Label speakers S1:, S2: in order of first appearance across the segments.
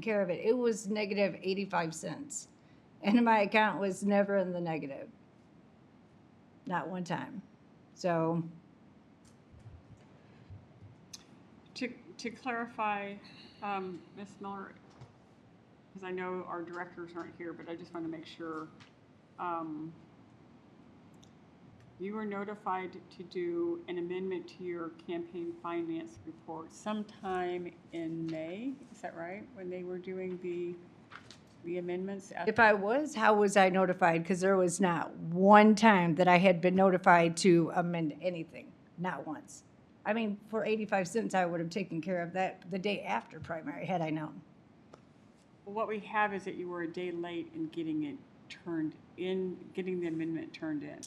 S1: care of it. It was negative 85 cents. And my account was never in the negative. Not one time. So
S2: To, to clarify, um, Ms. Miller, because I know our directors aren't here, but I just want to make sure. um, You were notified to do an amendment to your campaign finance report sometime in May, is that right? When they were doing the, the amendments? at-
S1: if I was, how was I notified? Because there was not one time that I had been notified to amend anything, not once. I mean, for 85 cents, I would have taken care of that the day after primary had I known.
S2: What we have is that you were a day late in getting it turned in, getting the amendment turned in.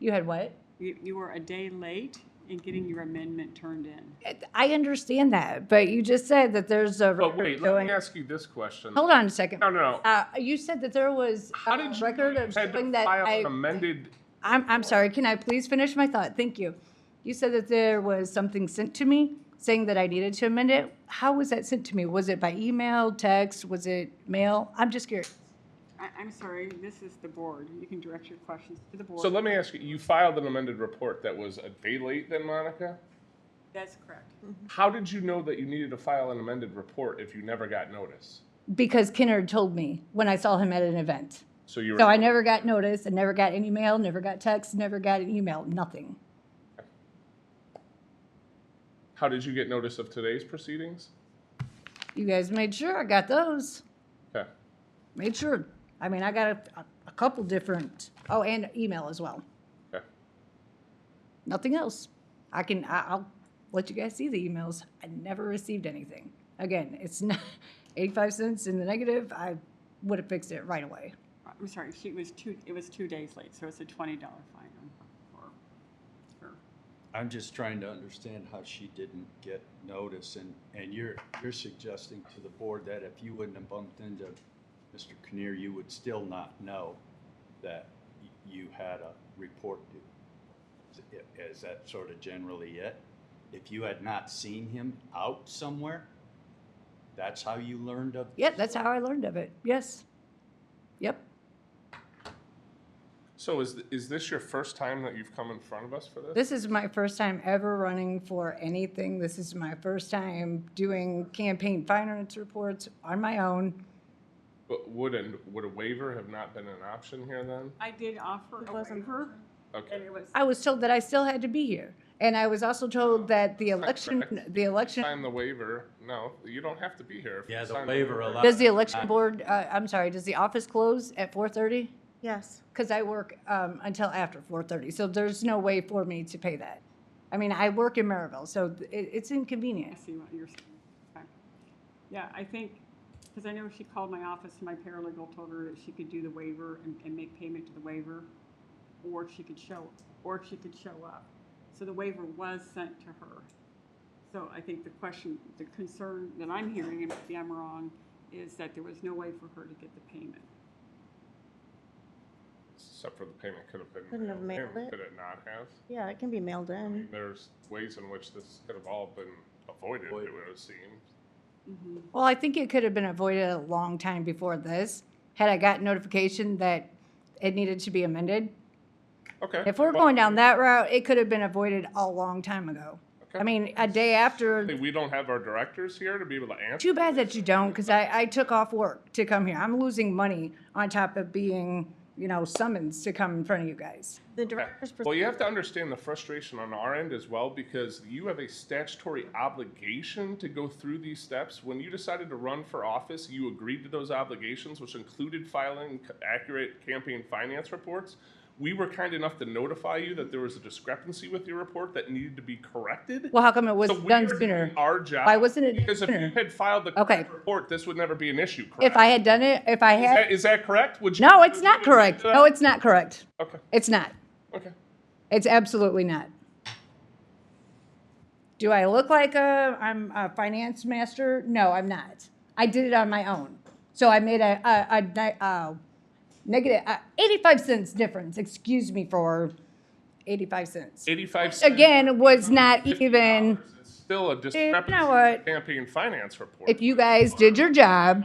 S1: You had what?
S2: You, you were a day late in getting your amendment turned in.
S1: I understand that, but you just said that there's a
S3: But wait, let
S1: going-
S3: me ask you this question.
S1: Hold on a second.
S3: No, no, no.
S1: Uh, you said that there was
S3: How
S1: a
S3: did you
S1: record
S3: know
S1: of
S3: you had to
S1: showing that
S3: file
S1: I,
S3: an amended?
S1: I'm, I'm sorry, can I please finish my thought? Thank you. You said that there was something sent to me saying that I needed to amend it. How was that sent to me? Was it by email, text, was it mail? I'm just curious.
S2: I, I'm sorry, this is the board. You can direct your questions to the board.
S3: So let me ask you, you filed an amended report that was a day late then, Monica?
S2: That's correct.
S3: How did you know that you needed to file an amended report if you never got notice?
S1: Because Kennard told me when I saw him at an event.
S3: So you were.
S1: So I never got notice and never got any mail, never got text, never got an email, nothing.
S3: How did you get notice of today's proceedings?
S1: You guys made sure I got those.
S3: Okay.
S1: Made sure. I mean, I got a, a couple different, oh, and email as well.
S3: Okay.
S1: Nothing else. I can, I, I'll let you guys see the emails. I never received anything. Again, it's not, eighty-five cents in the negative, I would have fixed it right away.
S2: I'm sorry, she was two, it was two days late, so it's a twenty dollar fine on- for, for,
S4: I'm just trying to understand how she didn't get notice, and, and you're, you're suggesting to the board that if you wouldn't have bumped into Mr. Kinnear, you would still not know that y- you had a report due. Is it- Is that sort of generally it? If you had not seen him out somewhere, that's how you learned of?
S1: Yeah, that's how I learned of it. Yes. Yep.
S3: So is, th- is this your first time that you've come in front of us for this?
S1: This is my first time ever running for anything. This is my first time doing campaign finance reports on my own.
S3: But would, an would a waiver have not been an option here then?
S2: I did offer a waiver, and
S3: Okay.
S2: it was,
S1: I was told that I still had to be here. And I was also told that the election,
S3: correct.
S1: the election.
S3: Sign the waiver. No, you don't have to be here. if you
S4: Yeah, the
S3: sign
S4: waiver allows.
S1: Does the election board, uh, I'm sorry, does the office close at four thirty?
S5: Yes.
S1: Because I work, um, until after four thirty, so there's no way for me to pay that. I mean, I work in Maryville, so it, it's
S2: I
S1: inconvenient.
S2: see what you're saying. Okay. Yeah, I think, because I know she called my office, and my paralegal told her that she could do the waiver and, and make payment to the waiver, or she could show, or she could show up. So the waiver was sent to her. So I think the question, the concern that I'm hearing, and maybe I'm wrong, is that there was no way for her to get the payment.
S3: Except for the payment could have been.
S5: Couldn't have
S3: mailed in.
S5: mailed it.
S3: Could it not have?
S5: Yeah, it can be mailed in.
S3: There's ways in which this could have all been avoided, it would
S4: Avoided.
S3: have seemed.
S1: Well, I think it could have been avoided a long time before this, had I got notification that it needed to be amended.
S3: Okay.
S1: If we're
S3: well,
S1: going down that route, it could have been avoided a long time ago. I
S3: Okay.
S1: mean, a day after
S3: Hey, We don't have our directors here to be able to answer.
S1: Too bad that you don't, because I, I took off work to come here. I'm losing money on top of being, you know, summoned to come in front of you guys.
S5: The director's.
S3: Well, you have to understand the frustration on our end as well, because you have a statutory obligation to go through these steps. When you decided to run for office, you agreed to those obligations, which included filing c- accurate campaign finance reports. We were kind enough to notify you that there was a discrepancy with your report that needed to be corrected.
S1: Well, how come it was
S3: So we
S1: done
S3: are doing
S1: sooner?
S3: Our job.
S1: Why wasn't it
S3: Because if you
S1: sooner?
S3: had filed the
S1: Okay.
S3: correct report, this would never be an issue, correct?
S1: If I had done it, if I
S3: Is that,
S1: had,
S3: is that correct? Would you?
S1: no, it's not correct. No, it's not correct.
S3: Okay,
S1: It's not.
S3: okay.
S1: It's absolutely not. Do I look like a, I'm a finance master? No, I'm not. I did it on my own. So I made a, a, a, ni- uh, negative, uh, 85 cents difference, excuse me for 85 cents.
S3: Eighty-five cents.
S1: Again, was not even,
S3: $50. It's- still a discrepancy in
S1: what?
S3: the campaign finance report.
S1: If you guys did your job,